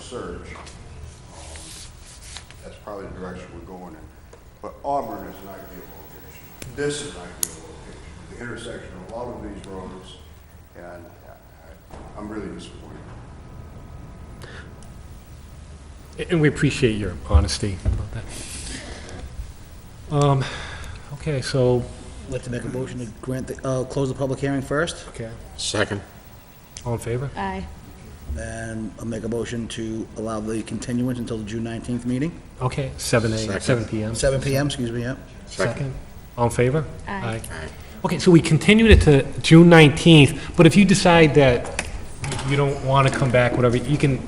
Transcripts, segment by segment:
surge. Um, That's probably the direction we're going in. But Auburn is an ideal location. This is an ideal location, the intersection of a lot of these roads, and I- I'm really disappointed. And we appreciate your honesty about that. Um, Okay, so, I'd like to make a motion to grant, the- uh, close the public hearing first, okay, Second. all in favor? Aye. and I'll make a motion to allow the continuance until the June 19th meeting, Okay, seven a, Second. seven PM. 7 PM, excuse me, yeah. Second. All in favor? Aye. Okay, so we continued it to June 19th, but if you decide that you don't want to come back, whatever, you can,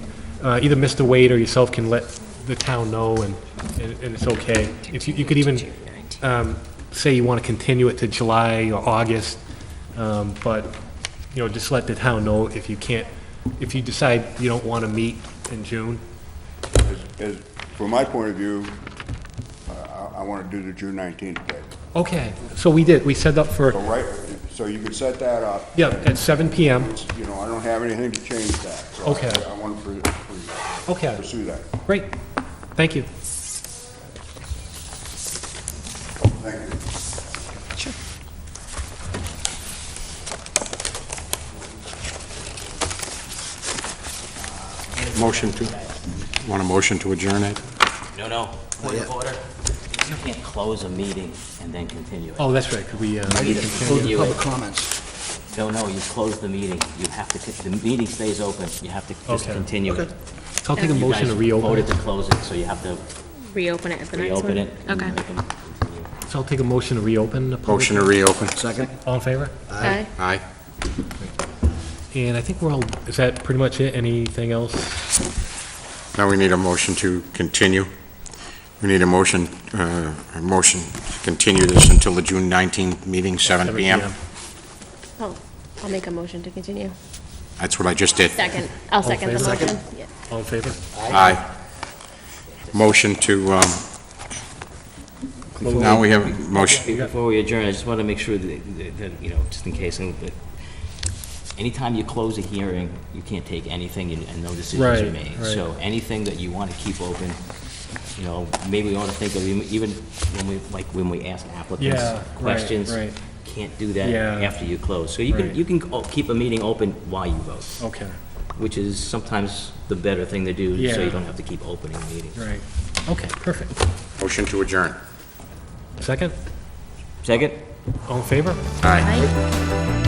uh, either Mr. Wade or yourself can let the town know, and and and it's okay. If you you could even um, say you want to continue it to July or August, um, but, you know, just let the town know if you can't, if you decide you don't want to meet in June. As- As, from my point of view, uh, I, I want to do the June 19th date. Okay, so we did, we set up So for, right, so you can set that up, yeah, at 7 PM. you know, I don't have anything to change that. So I- Okay. I want to Okay. pursue that. Great, thank you. Thank you. Motion to, want a motion to adjourn it? No, no, point of order. You can't close a meeting and then continue it. Oh, that's right, could we, uh, You Close the continue public it. comments. No, no, you close the meeting. You have to, con- the meeting stays open. You have to just Okay. continue Okay. it. I'll take a You motion guys to reopen voted it. to close it, so you have to Reopen it at the next one? reopen it. Mm-hmm. and Okay. you can continue. So I'll take a motion to reopen the public. Motion to reopen. Second? All in favor? Aye. Aye. And I think we're all, is that pretty much it? Anything else? Now we need a motion to continue. We need a motion, uh, a motion to continue this until the June 19th meeting, 7 PM. Oh, I'll make a motion to continue. That's what I just did. Second, I'll second the favor? motion. Yeah. All in favor? Aye. Motion to, um, now we have a motion. Before we adjourn, I just want to make sure that, that- that, you know, just in case, and that anytime you close a hearing, you can't take anything and and no decisions are Right, made. right. So anything that you want to keep open, you know, maybe we ought to think of, even- even when we, like, when we ask applicants Yeah, right, questions, right. can't do that Yeah. after you close. So you can, Right. Oh. you can o- keep a meeting open while you vote, Okay, which is sometimes the better thing to do, so Yeah. you don't have to keep opening meetings. right. Okay, perfect. Motion to adjourn. Second? Second? All in favor? Aye. Aye.